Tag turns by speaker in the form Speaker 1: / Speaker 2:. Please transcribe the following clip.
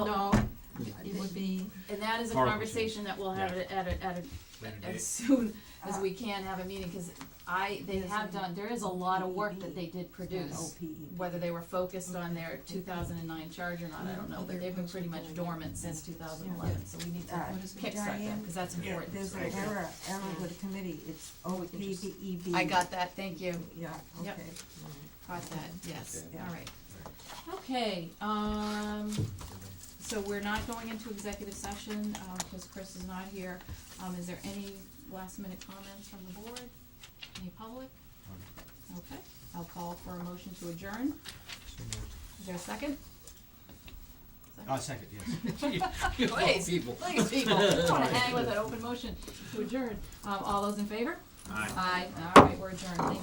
Speaker 1: and that is a
Speaker 2: Horrible
Speaker 1: conversation that we'll have
Speaker 2: Yeah.
Speaker 1: at, a- at, a- at, a-
Speaker 2: Later date.
Speaker 1: as soon as we can have a meeting, cause I, they have done, there is a lot of work that they did produce.
Speaker 3: E.
Speaker 1: Whether they were focused on their two thousand and nine charge or not, I don't know, but they've been pretty much dormant since two thousand and eleven, so we need to
Speaker 3: Alright.
Speaker 1: kickstart them, cause that's
Speaker 2: Yeah.
Speaker 1: important.
Speaker 3: There's an error, error with the committee, it's O P B E B.
Speaker 1: I got that, thank you,
Speaker 3: Yeah,
Speaker 1: Yep.
Speaker 3: okay.
Speaker 1: caught that, yes,
Speaker 3: Okay.
Speaker 1: alright. Okay, um, so we're not going into executive session, um, cause Chris is not here. Um, is there any last minute comments from the board, any public? Okay, I'll call for a motion to adjourn. Is there a second?
Speaker 2: Oh, second, yes. You of all
Speaker 1: Please,
Speaker 2: people.
Speaker 1: Please, people, I don't wanna hang with an open motion to adjourn. Um, all those in favor?
Speaker 2: Aye.
Speaker 1: Aye, alright, we're adjourned, thank you.